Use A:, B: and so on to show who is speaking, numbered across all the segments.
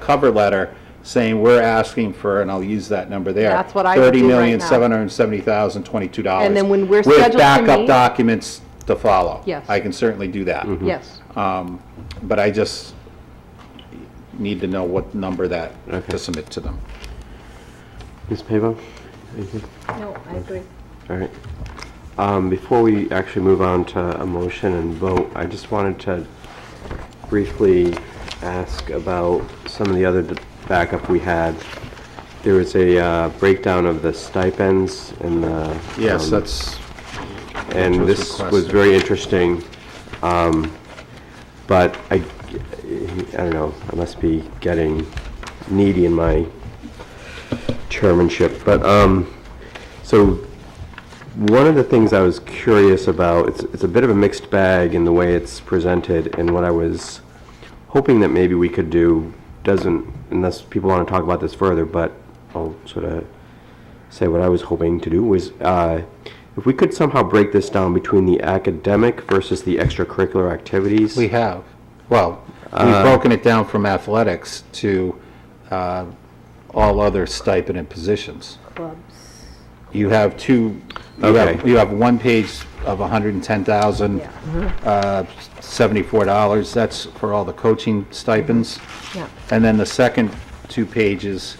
A: cover letter saying we're asking for, and I'll use that number there.
B: That's what I would do right now.
A: $30,770,022.
B: And then when we're scheduled to
A: With backup
B: meet-
A: documents to follow.
B: Yes.
A: I can certainly do that.
B: Yes.
A: Um, But I just need to know what number that,
C: Okay.
A: to submit to them.
C: Ms. Pavo? Anything?
B: No, I agree.
C: All right. Um, Before we actually move on to a motion and vote, I just wanted to briefly ask about some of the other d- backup we had. There was a uh, breakdown of the stipends and the...
A: Yes,
C: um,
A: that's,
C: and
A: was
C: this was
A: requested.
C: very interesting. Um, But I, I don't know, I must be getting needy in my chairmanship. But, um, so one of the things I was curious about, it's, it's a bit of a mixed bag in the way it's presented, and what I was hoping that maybe we could do doesn't, unless people want to talk about this further, but I'll sort of say what I was hoping to do was uh, if we could somehow break this down between the academic versus the extracurricular activities.
A: we have, well, we've broken it down from athletics to uh, all other stipend and positions.
B: Clubs.
A: You have two, you have,
C: Okay.
A: you have one page of $110,000,
B: mm-hmm.
A: uh, $74, that's for all the coaching stipends.
B: Mm-hmm. Yeah.
A: And then the second two pages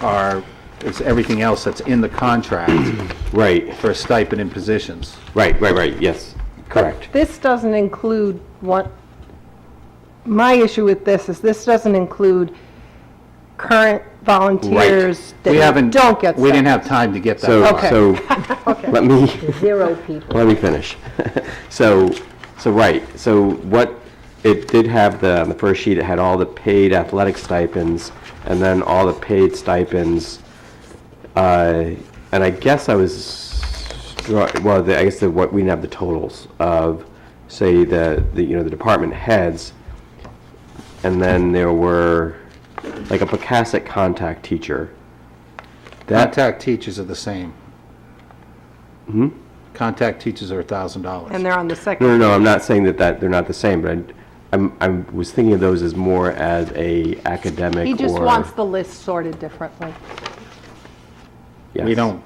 A: are, is everything else that's in the contract
C: right,
A: for stipend and positions.
C: right, right, right. Yes, correct.
B: This doesn't include one, my issue with this is this doesn't include current volunteers
A: We
B: that
A: haven't,
B: don't get
A: we didn't
B: sick.
A: have time to get
C: So,
A: that.
B: Okay.
C: so let me
B: Zero people.
C: let me finish. so, so right. So what it did have the on the first sheet. It had all the paid athletic stipends, and then all the paid stipends. Uh, and I guess I was draw- well. The, I guess the, what we didn't have the totals of, say the, the you know the department heads, and then there were like a Picassic contact teacher. That
A: Contact teachers are the same.
C: Hmm?
A: Contact teachers are $1,000.
B: And they're on the
C: No,
B: second.
C: no, no, I'm not saying that, that they're not the same, but I- I'm, I was thinking of those as more as a academic or...
B: He just wants the list sorted differently.
A: We
C: Yes.
A: don't,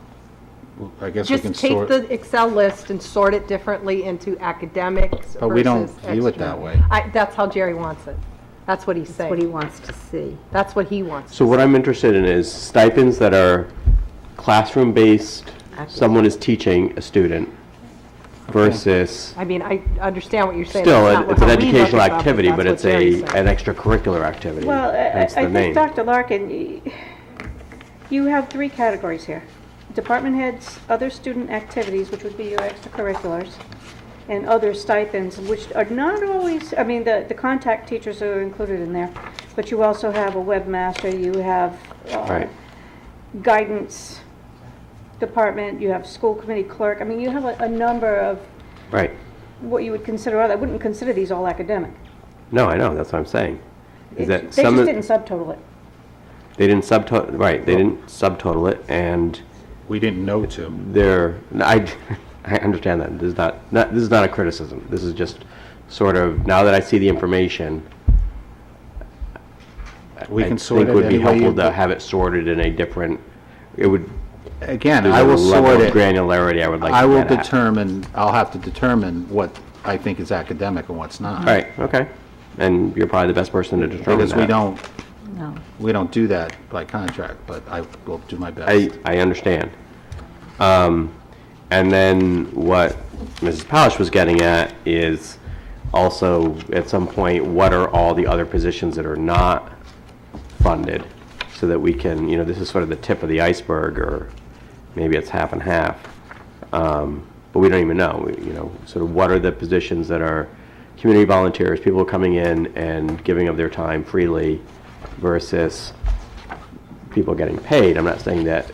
A: I guess we
B: Just
A: can
B: take
A: sort.
B: the Excel list and sort it differently into academics versus
A: But we don't view it
B: extra.
A: that way.
B: I, that's how Jerry wants it. That's what he's
D: what he
B: saying.
D: wants to see.
B: That's what he wants.
C: So what I'm interested in is stipends that are classroom-based, someone is teaching a student versus,
B: I mean, I understand what you're saying.
C: still,
B: That's
C: it-
B: not
C: it's an
B: how we look
C: educational
B: at it,
C: activity, but
B: that's
C: it's
B: what
C: a,
B: Jerry's saying.
C: an extracurricular activity.
E: Well, I-
C: hence
E: I
C: the
E: I think,
C: name.
E: Dr. Larkin, y- you have three categories here. Department heads, other student activities, which would be your extracurriculars, and other stipends, which are not always, I mean, the, the contact teachers are included in there, but you also have a webmaster, you have uh,
C: Right.
E: guidance department, you have school committee clerk. I mean, you have a, a number of
C: Right.
E: what you would consider, other- I wouldn't consider these all academic.
C: No, I know, that's what I'm saying. Is
E: It's-
C: that
E: They
C: some,
E: just
C: of-
E: didn't subtotal it.
C: they didn't subtotal, right, they didn't subtotal it, and...
A: We didn't know to.
C: there, I, I understand that, this is not, not, this is not a criticism, this is just sort of, now that I see the information,
A: We
C: I
A: can sort
C: think
A: it
C: would be
A: any way.
C: helpful to
A: you-
C: have it sorted in a different, it would,
A: Again,
C: there's
A: I
C: a
A: will
C: level
A: sort
C: of
A: it.
C: granularity I would like to
A: I will
C: get at.
A: determine, I'll have to determine what I think is academic and what's not.
C: All right, okay, and you're probably the best person to determine
A: Because we
C: that.
A: don't, we don't do that by contract, but I will do my
C: I,
A: best.
C: I understand. Um, and then what Mrs. Palish was getting at is also, at some point, what are all the other positions that are not funded? So that we can, you know, this is sort of the tip of the iceberg, or maybe it's half and half. Um, But we don't even know, We- you know, sort of what are the positions that are community volunteers, people coming in and giving of their time freely versus people getting paid. I'm not saying that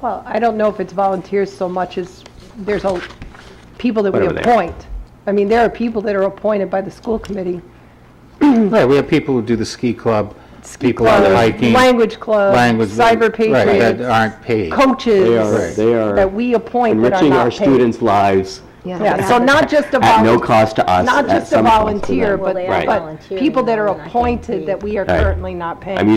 B: Well, I don't know if it's volunteers so much as there's a, people that we
C: Whatever they are.
B: appoint. I mean, there are people that are appointed by the school committee.
A: Right, we have people who do the ski club, people out
B: club,
A: hiking.
B: Language club,
A: language-
B: cyber
A: Right, that
B: patriots,
A: aren't paid.
C: They are-
B: coaches.
C: they are
B: That we appoint that are
C: enriching our
B: not paid.
C: students' lives
B: Yeah, so not just a
C: at no
B: volunteer.
C: cost to us.
B: not
C: at
B: just a
C: some cost to
B: volunteer,
C: them.
B: but,
D: Well, they are
B: but
D: volunteering,
B: people that are
D: though, and I think
B: appointed that we are
C: Right.
B: currently not paying.
C: I'm